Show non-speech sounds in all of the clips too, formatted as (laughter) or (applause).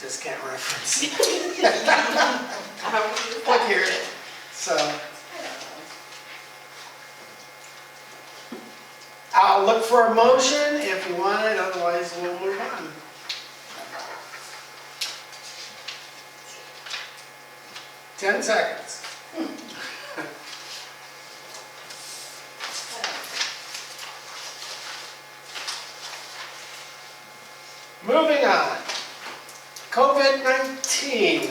just can't reference. Look Look here, so. I'll look for a motion if you want it, otherwise we'll move on. Ten seconds. Moving on. COVID-19.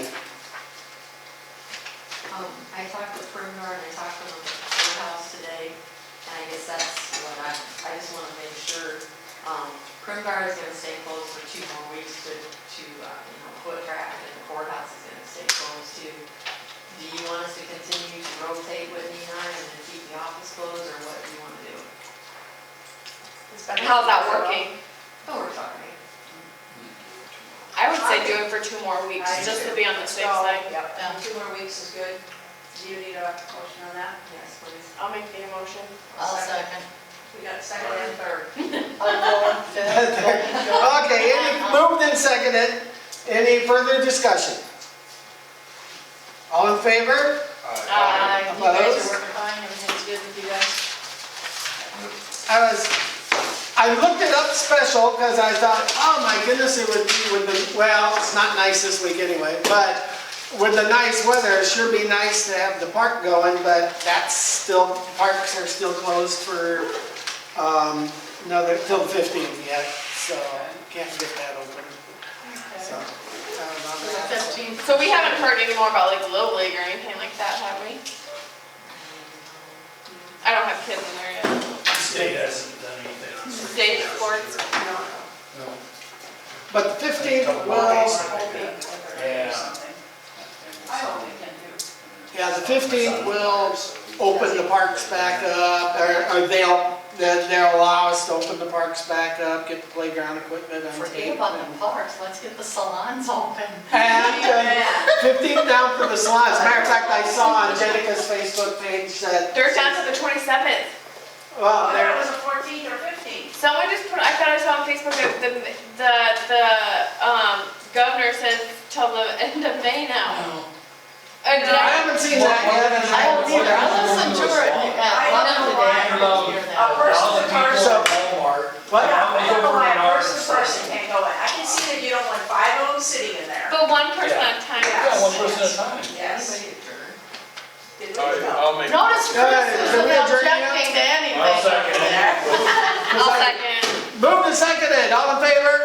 Um, I talked to Primgar and I talked to the courthouse today, and I guess that's what I, I just want to make sure. Um, Primgar is going to stay closed for two more weeks to, to, uh, you know, foot traffic and the courthouse is going to stay closed too. Do you want us to continue to rotate with Nina and then keep the office closed, or what do you want to do? And how's that working? Oh, we're sorry. I would say do it for two more weeks, just to be on the safe side. Yeah. Two more weeks is good. Do you need a motion on that? Yes, please. I'll make the motion. I'll second. We got a second and third. (laughs) Okay, any, moved and seconded. Any further discussion? All in favor? Aye. You guys are working fine, everything's good with you guys? I was, I looked it up special because I thought, oh my goodness, it would be with the, well, it's not nice this week anyway, but with the nice weather, it sure be nice to have the park going, but that's still, parks are still closed for, um, another, till the fifteenth yet, so can't get that open. So, um, I'm- Fifteen. So we haven't heard any more about like Little League or anything like that, have we? I don't have kids in there yet. State hasn't done anything on certain State areas. sports. But the fifteenth, Couple well, days. Yeah. yeah, the fifteenth will open the parks back up, or or they'll, they'll they'll allow us to open the parks back up, get the playground equipment on tape. Forget about the parks, let's get the salons open. Oh, And (laughs) fifteenth down for the salons. As a matter of fact, I saw on Jenica's Facebook page that, They're down to the twenty-seventh. well, There there, a fourteen or fifteen. Someone just put, I thought I saw on Facebook that the, the, the, um, governor says till the end of May now. Uh, did I I? haven't seen that yet. I don't either, I listened to her at at one of the day, I didn't hear A that. person to person. So- Walmart. What? Yeah, I don't know why a person to person Yeah, can't go in. I can see that you don't want five of them sitting in there. But one person at a time. Yeah. one person at a time. Yes. Did we All right, go? I'll make, Notice Go ahead, Chris is can we adjourn now? objecting to anything. I'll second it. I'll second. Moved and seconded, all in favor?